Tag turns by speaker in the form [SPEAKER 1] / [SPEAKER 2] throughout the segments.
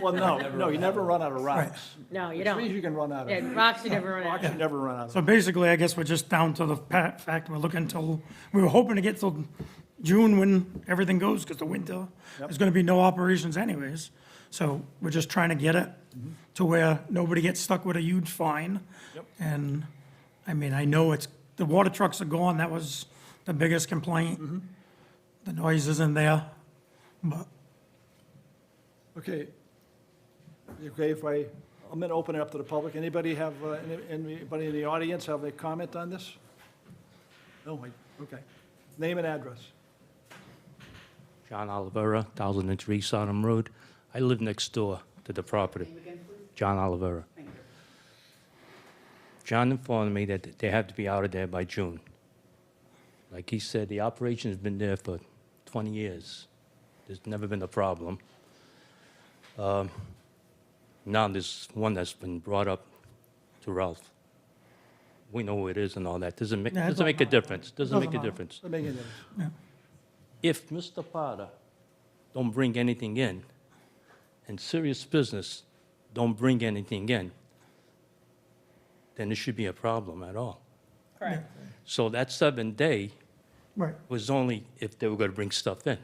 [SPEAKER 1] Well, no, no, you never run out of rocks.
[SPEAKER 2] No, you
[SPEAKER 1] Which
[SPEAKER 2] don't.
[SPEAKER 1] means you can run out
[SPEAKER 2] Yeah,
[SPEAKER 1] of,
[SPEAKER 2] rocks you never run out
[SPEAKER 1] rocks
[SPEAKER 2] of.
[SPEAKER 1] you never run out of.
[SPEAKER 3] So basically, I guess we're just down to the pa- fact we're looking till, we were hoping to get till June when everything goes, because the winter, there's gonna be no operations anyways. So we're just trying to get it
[SPEAKER 1] Mm-hmm.
[SPEAKER 3] to where nobody gets stuck with a huge fine. And, I mean, I know it's, the water trucks are gone, that was the biggest complaint. The noise isn't there, but
[SPEAKER 1] Okay. You Okay, if I, I'm going to open it up to the public. Anybody have, uh, any- anybody in the audience have a comment on this? No, wait, okay. Name and address.
[SPEAKER 4] John Olivera, 1003 Sodom Road. I live next door to the property. John Olivera. John informed me that they have to be out of there by June. Like he said, the operation's been there for 20 years. There's never been a problem. Um, Now, there's one that's been brought up to Ralph. We know who it is and all that. Doesn't make,
[SPEAKER 3] Yeah, it
[SPEAKER 4] doesn't
[SPEAKER 3] don't
[SPEAKER 4] make a difference. Doesn't make a
[SPEAKER 3] matter.
[SPEAKER 4] difference
[SPEAKER 1] Let me get it.
[SPEAKER 4] if Mr. Potter don't bring anything in, and serious business don't bring anything in, then there should be a problem at all.
[SPEAKER 2] Correct.
[SPEAKER 4] So that seven day
[SPEAKER 3] Right,
[SPEAKER 4] was only if they were gonna bring stuff in.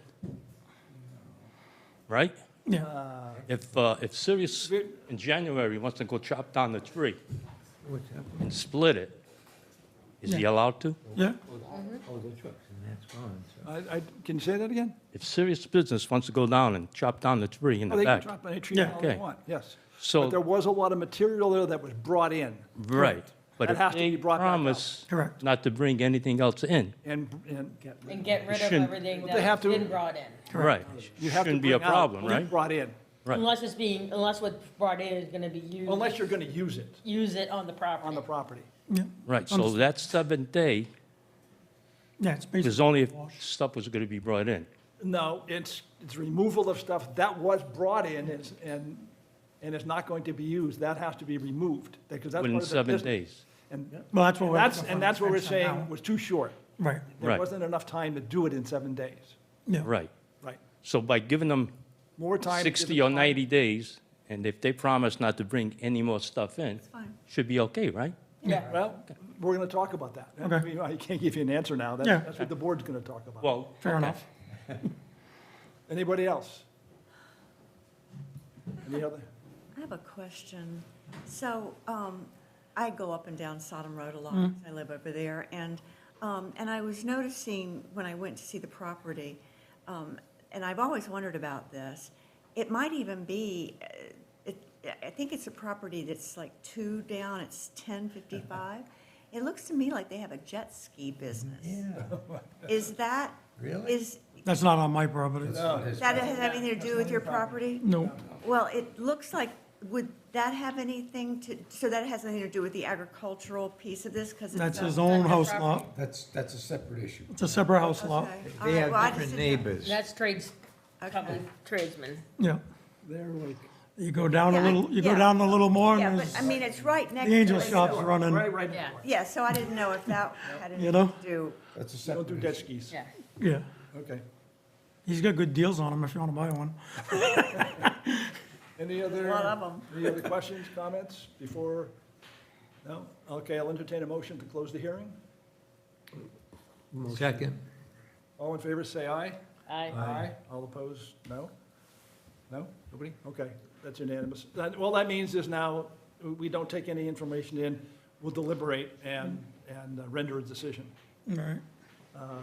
[SPEAKER 4] Right?
[SPEAKER 3] yeah,
[SPEAKER 4] If, uh, if Sirius in January wants to go chop down the tree and split it, is he allowed to?
[SPEAKER 3] yeah,
[SPEAKER 5] Oh, the trucks, and that's gone, so.
[SPEAKER 1] I, I, can you say that again?
[SPEAKER 4] If serious business wants to go down and chop down the tree in
[SPEAKER 1] Oh,
[SPEAKER 4] the
[SPEAKER 1] They can
[SPEAKER 4] back,
[SPEAKER 1] drop any tree all they
[SPEAKER 4] Okay.
[SPEAKER 1] want, yes.
[SPEAKER 4] so.
[SPEAKER 1] But there was a lot of material there that was brought in.
[SPEAKER 4] Right. But
[SPEAKER 1] That
[SPEAKER 4] if
[SPEAKER 1] has to
[SPEAKER 4] they
[SPEAKER 1] be brought back up.
[SPEAKER 4] promise
[SPEAKER 3] Correct.
[SPEAKER 4] not to bring anything else in,
[SPEAKER 1] And, and
[SPEAKER 2] And get rid of
[SPEAKER 4] Shouldn't-
[SPEAKER 2] everything
[SPEAKER 1] But they have
[SPEAKER 2] that's
[SPEAKER 1] to-
[SPEAKER 2] been brought in.
[SPEAKER 4] right,
[SPEAKER 1] you have to
[SPEAKER 4] shouldn't be a
[SPEAKER 1] bring out
[SPEAKER 4] problem,
[SPEAKER 1] what's
[SPEAKER 4] right?
[SPEAKER 1] Brought in,
[SPEAKER 4] Right.
[SPEAKER 2] Unless it's being, unless what's brought in is gonna be used.
[SPEAKER 1] unless you're going to use it
[SPEAKER 2] Use it on the
[SPEAKER 1] on
[SPEAKER 2] property.
[SPEAKER 1] the property.
[SPEAKER 3] yeah,
[SPEAKER 4] Right, so that seventh day
[SPEAKER 3] yeah, it's
[SPEAKER 4] is
[SPEAKER 3] basically,
[SPEAKER 4] only if stuff was going to be brought in.
[SPEAKER 1] No, it's, it's removal of stuff that was brought in is- and, and it's not going to be used. That has to be removed because that's part
[SPEAKER 4] Within
[SPEAKER 1] of the
[SPEAKER 4] seven
[SPEAKER 1] business.
[SPEAKER 4] days.
[SPEAKER 1] And
[SPEAKER 3] well, that's what we're.
[SPEAKER 1] that's, and that's what we're saying
[SPEAKER 3] now.
[SPEAKER 1] was too short.
[SPEAKER 3] Right,
[SPEAKER 1] There
[SPEAKER 4] Right.
[SPEAKER 1] wasn't enough time to do it in seven days.
[SPEAKER 3] yeah.
[SPEAKER 4] Right.
[SPEAKER 1] Right.
[SPEAKER 4] So by giving them
[SPEAKER 1] More time. to give
[SPEAKER 4] 60
[SPEAKER 1] the
[SPEAKER 4] or
[SPEAKER 1] time.
[SPEAKER 4] 90 days, and if they promise not to bring any more stuff in, should be okay, right?
[SPEAKER 2] Yeah.
[SPEAKER 1] Well, we're going to talk about that. I
[SPEAKER 3] Okay.
[SPEAKER 1] mean, I can't give you an answer now. That's,
[SPEAKER 3] Yeah.
[SPEAKER 1] that's what the board's going to talk about.
[SPEAKER 4] Well,
[SPEAKER 3] Fair
[SPEAKER 4] okay.
[SPEAKER 3] enough.
[SPEAKER 1] Anybody else? Any other?
[SPEAKER 6] I have a question. So, um, I go up and down Sodom Road a lot, I live over there, and, um, and I was noticing when I went to see the property, um, and I've always wondered about this, it might even be, uh, it, I think it's a property that's like two down, it's ten fifty-five. It looks to me like they have a jet ski business. Is that?
[SPEAKER 5] Really?
[SPEAKER 6] Is,
[SPEAKER 3] That's not on my property.
[SPEAKER 5] It's-
[SPEAKER 6] that has anything to do with your property?
[SPEAKER 3] No,
[SPEAKER 6] Well, it looks like, would that have anything to, so that has nothing to do with the agricultural piece of this, because it's.
[SPEAKER 3] that's
[SPEAKER 6] not-
[SPEAKER 3] his own
[SPEAKER 2] That's
[SPEAKER 3] house
[SPEAKER 2] property.
[SPEAKER 3] lot.
[SPEAKER 5] That's, that's a separate issue.
[SPEAKER 3] It's a separate house
[SPEAKER 6] Okay.
[SPEAKER 3] lot.
[SPEAKER 6] All
[SPEAKER 5] They
[SPEAKER 6] right, well, I
[SPEAKER 5] have
[SPEAKER 6] just
[SPEAKER 5] different
[SPEAKER 6] didn't-
[SPEAKER 5] neighbors.
[SPEAKER 2] That's trades, probably
[SPEAKER 6] Okay.
[SPEAKER 2] tradesmen.
[SPEAKER 3] Yeah.
[SPEAKER 1] They're like,
[SPEAKER 3] You go down a
[SPEAKER 6] Yeah, I-
[SPEAKER 3] little, you go
[SPEAKER 6] yeah.
[SPEAKER 3] down a little more
[SPEAKER 6] Yeah,
[SPEAKER 3] and
[SPEAKER 6] but I
[SPEAKER 3] there's-
[SPEAKER 6] mean, it's right next
[SPEAKER 3] the
[SPEAKER 6] to.
[SPEAKER 3] angel
[SPEAKER 6] it.
[SPEAKER 3] shop's
[SPEAKER 1] right,
[SPEAKER 3] running.
[SPEAKER 1] right.
[SPEAKER 2] Yeah,
[SPEAKER 6] Yeah, so I didn't know if that had
[SPEAKER 3] You
[SPEAKER 6] anything
[SPEAKER 3] know?
[SPEAKER 6] to do.
[SPEAKER 5] That's a
[SPEAKER 1] Don't do
[SPEAKER 5] separate
[SPEAKER 1] jet
[SPEAKER 5] issue.
[SPEAKER 1] skis.
[SPEAKER 2] yeah.
[SPEAKER 3] Yeah.
[SPEAKER 1] Okay.
[SPEAKER 3] He's got good deals on them if you want to buy one.
[SPEAKER 1] Any other?
[SPEAKER 6] lot of 'em.
[SPEAKER 1] Any other questions, comments before? No? Okay, I'll entertain a motion to close the hearing.
[SPEAKER 5] Second.
[SPEAKER 1] All in favor, say aye.
[SPEAKER 2] I-
[SPEAKER 1] All opposed, no? No? Nobody? Okay, that's unanimous. That- All that means is now, we don't take any information in, we'll deliberate and, and uh, render a decision.
[SPEAKER 3] All right.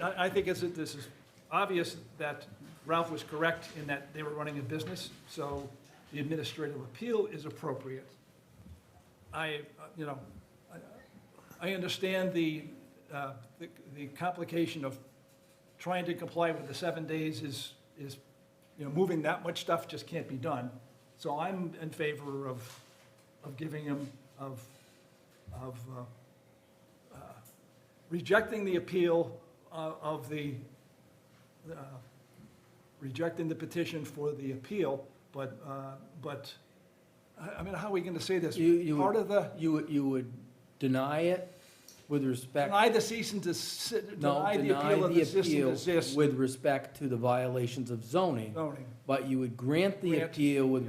[SPEAKER 1] I, I think it's, this is obvious that Ralph was correct in that they were running a business, so the administrative appeal is appropriate. I, uh, you know, I, I understand the, uh, the the complication of trying to comply with the seven days is, is, you know, moving that much stuff just can't be done. So I'm in favor of, of giving him, of, of, uh, rejecting the appeal uh, of the, uh, rejecting the petition for the appeal, but, uh, but, I I mean, how are we going to say this?
[SPEAKER 7] You- you would-
[SPEAKER 1] Part of the,
[SPEAKER 7] You, would- you would deny it with respect,
[SPEAKER 1] Deny the cease and desist,
[SPEAKER 7] no,
[SPEAKER 1] deny the
[SPEAKER 7] deny
[SPEAKER 1] appeal of
[SPEAKER 7] the
[SPEAKER 1] the cease and
[SPEAKER 7] appeal
[SPEAKER 1] desist
[SPEAKER 7] with respect to the violations of zoning,
[SPEAKER 1] zoning.
[SPEAKER 7] but you would grant the
[SPEAKER 1] Grant-
[SPEAKER 7] appeal with